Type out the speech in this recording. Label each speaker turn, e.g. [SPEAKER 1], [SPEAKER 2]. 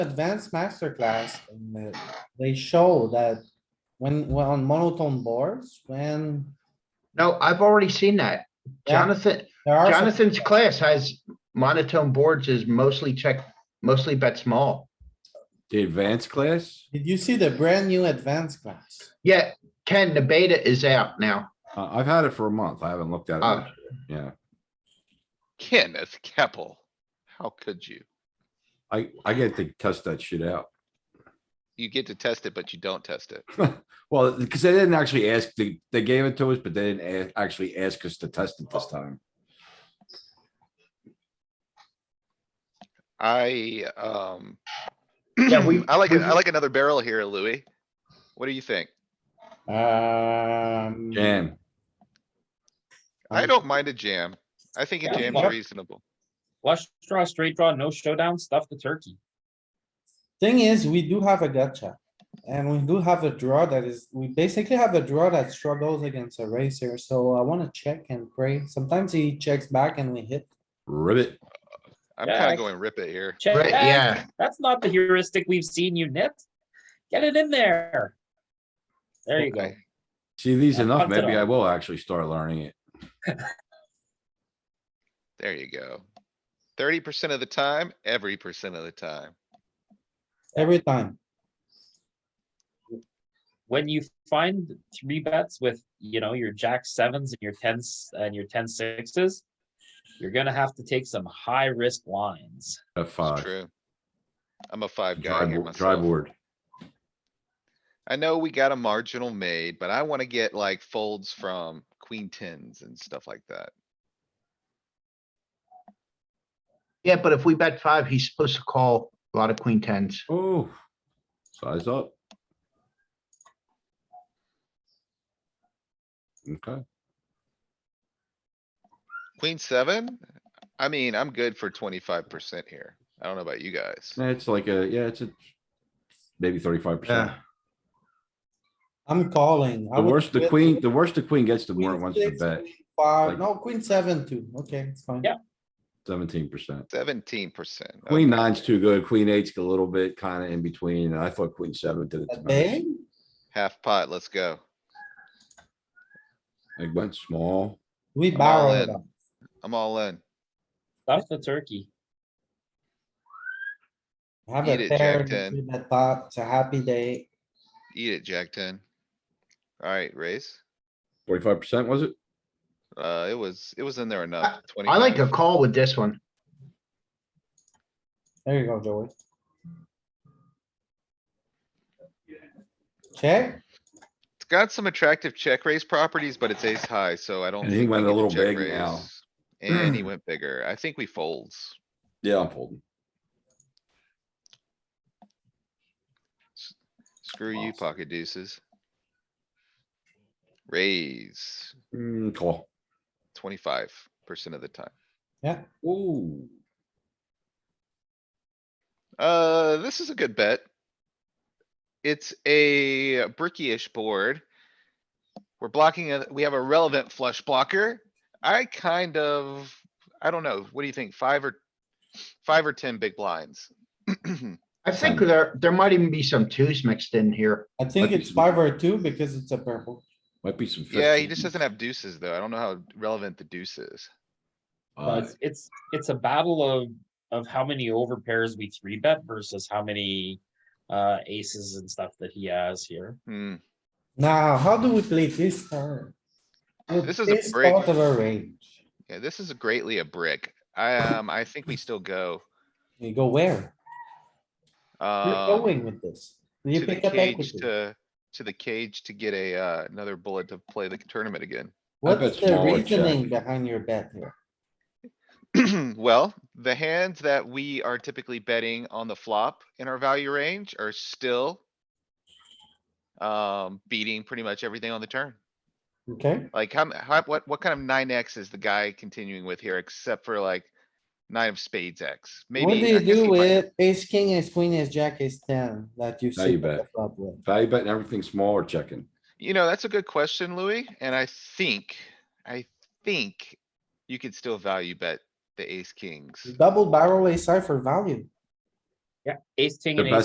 [SPEAKER 1] advanced masterclass, and, uh, they show that when, well, on monotone boards, when
[SPEAKER 2] No, I've already seen that.
[SPEAKER 1] Yeah.
[SPEAKER 2] Jonathan,
[SPEAKER 1] there are. some-
[SPEAKER 2] Jonathan's class has monotone boards is mostly check, mostly bet small.
[SPEAKER 3] The advanced class?
[SPEAKER 1] Did you see the brand new advanced class?
[SPEAKER 2] Yeah, Ken, the beta is out now.
[SPEAKER 3] Uh, I've had it for a month. I haven't looked at it.
[SPEAKER 4] Oh.
[SPEAKER 2] Ah.
[SPEAKER 3] much. Yeah,
[SPEAKER 4] Kenneth Keppel, how could you?
[SPEAKER 3] I, I get to test that shit out.
[SPEAKER 4] You get to test it, but you don't test it.
[SPEAKER 3] Well, because they didn't actually ask, they, they gave it to us, but they didn't a- actually ask us to test it this time.
[SPEAKER 4] I, um.
[SPEAKER 2] Yeah, we-
[SPEAKER 4] I like,
[SPEAKER 2] we've-
[SPEAKER 4] I like another barrel here, Louis. What do you think? Oh.
[SPEAKER 1] Um.
[SPEAKER 3] Jam.
[SPEAKER 4] I
[SPEAKER 1] Um,
[SPEAKER 4] don't mind a jam. I think a
[SPEAKER 5] Yeah,
[SPEAKER 4] jam's
[SPEAKER 5] yeah.
[SPEAKER 4] reasonable.
[SPEAKER 5] Flush draw, straight draw, no showdown, stuff the turkey.
[SPEAKER 1] Thing is, we do have a gotcha. And we do have a draw that is, we basically have a draw that struggles against a racer, so I wanna check and pray. Sometimes he checks back and we hit.
[SPEAKER 3] Ribbit.
[SPEAKER 4] I'm
[SPEAKER 5] Yeah,
[SPEAKER 4] kinda
[SPEAKER 5] I-
[SPEAKER 4] going rip it here.
[SPEAKER 5] Check
[SPEAKER 2] Right,
[SPEAKER 5] back.
[SPEAKER 2] yeah,
[SPEAKER 5] That's not the heuristic we've seen you knit. Get it in there. There you go.
[SPEAKER 4] Okay.
[SPEAKER 3] See these
[SPEAKER 5] Yeah,
[SPEAKER 3] enough,
[SPEAKER 5] punch it
[SPEAKER 3] maybe I
[SPEAKER 5] on.
[SPEAKER 3] will actually start learning it.
[SPEAKER 4] There you go. Thirty percent of the time, every percent of the time.
[SPEAKER 1] Every time.
[SPEAKER 5] When you find three bets with, you know, your jack sevens and your tens and your ten sixes, you're gonna have to take some high risk lines.
[SPEAKER 3] A
[SPEAKER 4] It's
[SPEAKER 3] five.
[SPEAKER 4] true. I'm a five guy here
[SPEAKER 3] Dry dry
[SPEAKER 4] myself.
[SPEAKER 3] board.
[SPEAKER 4] I know we got a marginal made, but I wanna get like folds from queen tens and stuff like that.
[SPEAKER 2] yeah, but if we bet five, he's supposed to call a lot of queen tens.
[SPEAKER 3] Oh. Size up. Okay,
[SPEAKER 4] Queen seven? I mean, I'm good for twenty-five percent here. I don't know about you guys.
[SPEAKER 3] Yeah, it's like a, yeah, it's a, maybe thirty-five percent.
[SPEAKER 2] Yeah.
[SPEAKER 1] I'm calling. I
[SPEAKER 3] The
[SPEAKER 1] would
[SPEAKER 3] worse the
[SPEAKER 1] quit
[SPEAKER 3] queen,
[SPEAKER 1] with
[SPEAKER 3] the worse the queen gets, the more it
[SPEAKER 1] queen
[SPEAKER 3] wants to
[SPEAKER 1] six,
[SPEAKER 3] bet,
[SPEAKER 1] queen Five,
[SPEAKER 3] Like-
[SPEAKER 1] no, queen seven too. Okay, it's fine.
[SPEAKER 5] Yeah.
[SPEAKER 3] seventeen percent.
[SPEAKER 4] Seventeen percent.
[SPEAKER 3] Queen nine's too good, queen eight's a little bit kinda in between, and I thought queen seven did it.
[SPEAKER 1] A
[SPEAKER 3] the
[SPEAKER 1] day?
[SPEAKER 3] most.
[SPEAKER 4] Half pot, let's go.
[SPEAKER 3] It went small.
[SPEAKER 1] we
[SPEAKER 4] I'm all
[SPEAKER 1] barrel it
[SPEAKER 4] in.
[SPEAKER 1] up.
[SPEAKER 4] I'm all in.
[SPEAKER 5] Stuff the turkey.
[SPEAKER 1] Have
[SPEAKER 4] Eat
[SPEAKER 1] a
[SPEAKER 4] it, Jack
[SPEAKER 1] pair,
[SPEAKER 4] ten.
[SPEAKER 1] three bet pot, it's a happy day.
[SPEAKER 4] Eat it, Jack ten. Alright, raise.
[SPEAKER 3] Forty-five percent, was it?
[SPEAKER 4] Uh, it was, it was in there enough.
[SPEAKER 2] I like a
[SPEAKER 4] 25.
[SPEAKER 2] call with this one.
[SPEAKER 1] There you go, Joey. Check.
[SPEAKER 4] It's got some attractive check raise properties, but it's ace high, so I don't.
[SPEAKER 3] And he
[SPEAKER 4] think we
[SPEAKER 3] went a
[SPEAKER 4] get to
[SPEAKER 3] little big
[SPEAKER 4] check
[SPEAKER 3] now.
[SPEAKER 4] raise. And he went bigger. I think we folds.
[SPEAKER 3] Yeah, I'm folding.
[SPEAKER 4] Screw you,
[SPEAKER 3] Awesome.
[SPEAKER 4] pocket deuces. Raise
[SPEAKER 3] Mm, call.
[SPEAKER 4] twenty-five percent of the time.
[SPEAKER 3] Ooh,
[SPEAKER 4] Uh, this is a good bet. It's a brickish board. We're blocking, a we have a relevant flush blocker. I kind of, I don't know, what do you think? Five or, five or ten big blinds?
[SPEAKER 2] I think
[SPEAKER 3] Ten.
[SPEAKER 2] there, there might even be some twos mixed in here.
[SPEAKER 1] I think
[SPEAKER 3] Lucky
[SPEAKER 1] it's
[SPEAKER 3] two.
[SPEAKER 1] five or two because it's a purple.
[SPEAKER 3] might be some.
[SPEAKER 4] Yeah, he
[SPEAKER 3] 15.
[SPEAKER 4] just doesn't have deuces though. I don't know how relevant the deuce is.
[SPEAKER 5] Well,
[SPEAKER 3] Uh,
[SPEAKER 5] it's, it's, it's a battle of, of how many over pairs we three bet versus how many uh, aces and stuff that he has here.
[SPEAKER 4] Hmm,
[SPEAKER 1] Now, how do we play this turn? With
[SPEAKER 4] This is a
[SPEAKER 1] this
[SPEAKER 4] break.
[SPEAKER 1] Part of a range.
[SPEAKER 4] yeah, this is greatly a brick. I, um, I think we still go.
[SPEAKER 1] You go where? You're
[SPEAKER 4] Um,
[SPEAKER 1] going with this.
[SPEAKER 4] to
[SPEAKER 1] You
[SPEAKER 4] the
[SPEAKER 1] pick up
[SPEAKER 4] cage
[SPEAKER 1] equity.
[SPEAKER 4] to, to the cage to get a, uh, another bullet to play the tournament again.
[SPEAKER 1] What's
[SPEAKER 3] bet
[SPEAKER 1] the
[SPEAKER 3] smaller check.
[SPEAKER 1] reasoning behind your bet here?
[SPEAKER 4] Well, the hands that we are typically betting on the flop in our value range are still. Um, beating pretty much everything on the turn.
[SPEAKER 1] Okay,
[SPEAKER 4] Like how, m- how, what, what kind of nine X is the guy continuing with here except for like? Nine of spades X, maybe.
[SPEAKER 1] what do you
[SPEAKER 4] I guess he
[SPEAKER 1] do
[SPEAKER 4] might-
[SPEAKER 1] with ace, king, ace, queen, ace, jack, ace ten that you
[SPEAKER 3] Now
[SPEAKER 1] see
[SPEAKER 3] you
[SPEAKER 1] the
[SPEAKER 3] bet.
[SPEAKER 1] flop with?
[SPEAKER 3] Value betting everything small or checking?
[SPEAKER 4] You know, that's a good question, Louis, and I think, I think you could still value bet the ace kings.
[SPEAKER 1] Double barrel ace high for value.
[SPEAKER 5] Yeah, ace, king
[SPEAKER 3] The
[SPEAKER 5] and
[SPEAKER 3] best
[SPEAKER 5] ace